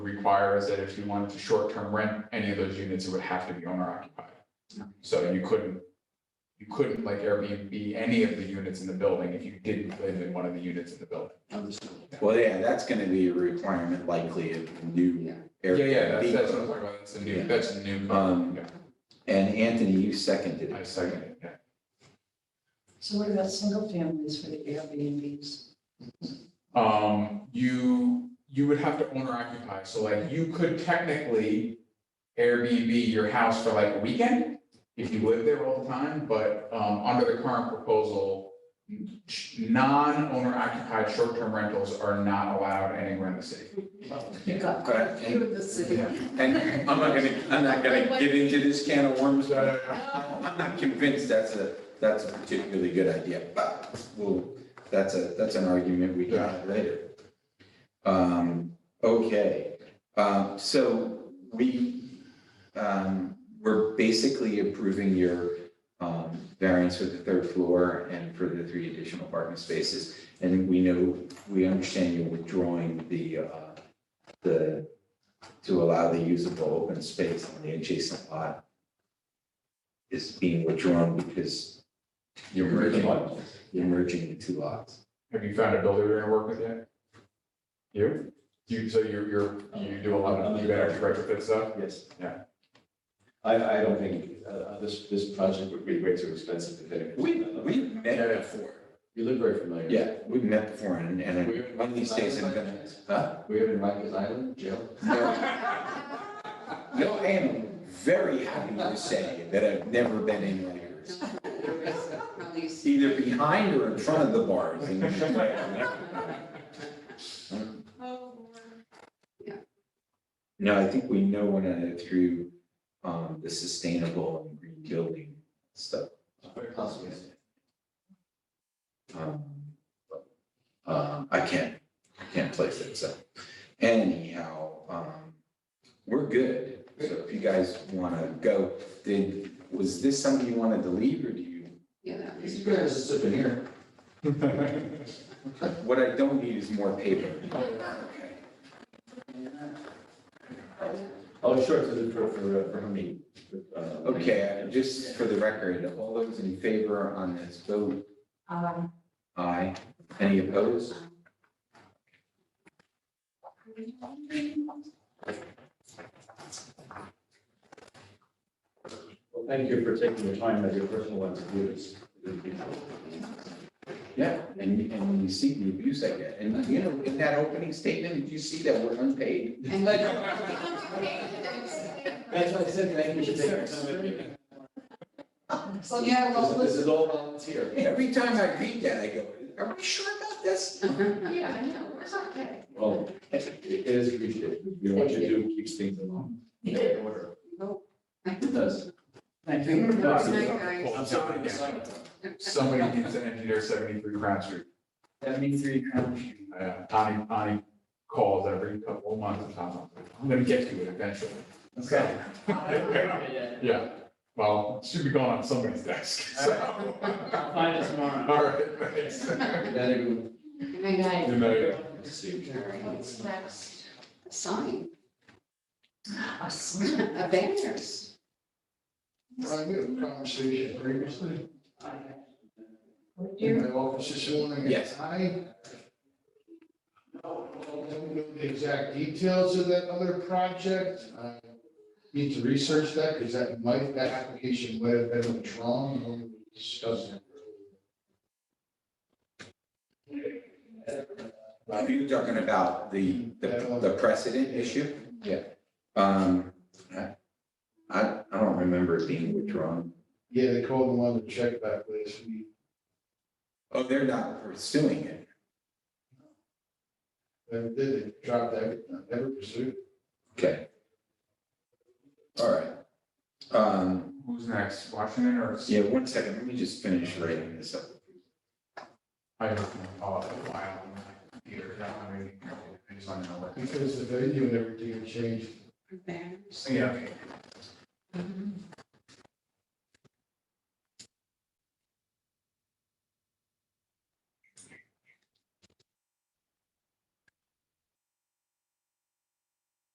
require is that if you wanted to short-term rent any of those units, it would have to be owner occupied. So you couldn't, you couldn't like Airbnb any of the units in the building if you didn't live in one of the units in the building. Well, yeah, that's gonna be a requirement likely of new. Yeah, yeah, that's, Airbnb. that's what I'm talking about, that's a new, that's a new. Um, yeah, And Anthony, you seconded I it. second it, yeah. So what about single families for the Airbnbs? Um, you, you would have to owner occupy, so like you could technically Airbnb your house for like a weekend if you live there all the time, but, um, under the current proposal, sh- non-owner occupied short-term rentals are not allowed anywhere in the city. You got quite a few in the city. And I'm not gonna, I'm not gonna get into this can of worms, but I- No. I'm not convinced that's a, that's a particularly good idea, but well, that's a, that's an argument we can have later. Um, okay, um, so we, um, we're basically approving your, um, variance for the third floor and for the three additional parking spaces. And we know, we understand you're withdrawing the, uh, the, to allow the usable open space on the adjacent lot is being withdrawn because you're merging, you're merging the two lots. Have you found a builder you're gonna work with yet? You? You, so you're, you're, you do a lot of, you actually retrofit stuff? Yes. Yeah. I, I don't think, uh, uh, this, this project would be way too expensive to finish. We, Uh, we met Yeah. before. You look very familiar. Yeah, we met before and, and We- one of these days I'm gonna, uh, huh? We have in Rikers Island jail. No, I am very happy to say that I've never been in Rikers, either behind or in front of the bars. in which way I've never been. No, I think we know one another through, um, the sustainable and green building stuff. Possibly. Um, but, uh, I can't, I can't place it, so anyhow, um, we're good. So if you guys want to go, did, was this something you wanted to leave or do you? It's good as a souvenir. What I don't need is more paper. Oh, sure, to the, for, for, uh, for me. Okay, just for the record, all those in favor on this vote, Um, aye. Any opposed? Well, thank you for taking the time out of your personal life to do this. Yeah, and, and you see the abuse I get. And you know, in that opening statement, did you see that we're unpaid? That's what I said, thank you for taking the time. out of your- So you have all This this this. is all volunteer. Every time I read that, I go, are we sure about this? yeah, I know, it's okay. Well, it is appreciated. You know, what you do keeps things along. in order. It does. Thank Well, John, yeah. Somebody needs to engineer seventy-three Crown Street. Seventy-three Crown Street. Uh, Tommy, Tommy calls every couple of months, and Tom's like, I'm gonna get to it eventually. Okay. Yeah, well, it should be going on somebody's desk, so. Find us tomorrow. All right, thanks. Then Good night. Good night. it was. What's next? A sign, Us. a banners. I had a conversation previously in You're my office this morning. and Yes. I don't know the exact details of that other project. I Need to research that because that might, that application might have been withdrawn when we discussed it. Are you talking about the, the the precedent issue? Yeah. Um, I, I I don't remember it being withdrawn. Yeah, they called and wanted to check back last week. Oh, they're not pursuing it. Never did, they dropped that, never pursued. Okay. All right. Um, Who's next, Washington or? yeah, one second, let me just finish writing this up. I don't know, oh, wow, Peter, I mean, I just want to know what. Because the venue and everything had changed. Banners. Yeah.